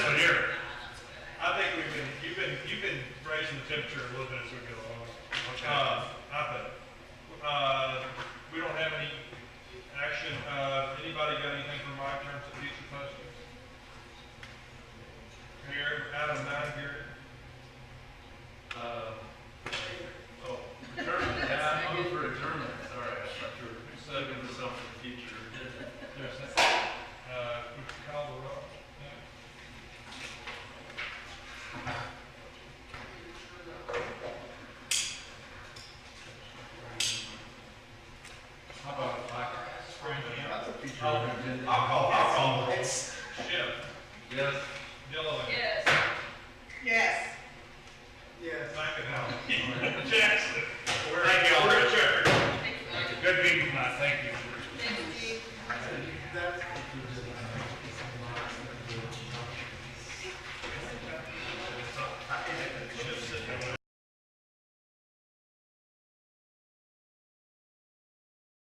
temperature a little bit as we go along. Uh, I think, uh, we don't have any action, uh, anybody got anything for Mike in terms of future questions? Here, item nine, here. Uh, oh, retirement, yeah, I'm Oh, over retirement, sorry, I thought you were saving for something in the future. There's that. Uh, would you call the roll? How about if I Bring it in. That's a future agenda. I'll call, I'll call the roll. Schiff, Yes, Dillon, Yes. Yes. McInnes, Jackson. We're, we're adjourned. Thank you. Good meeting tonight, thank you.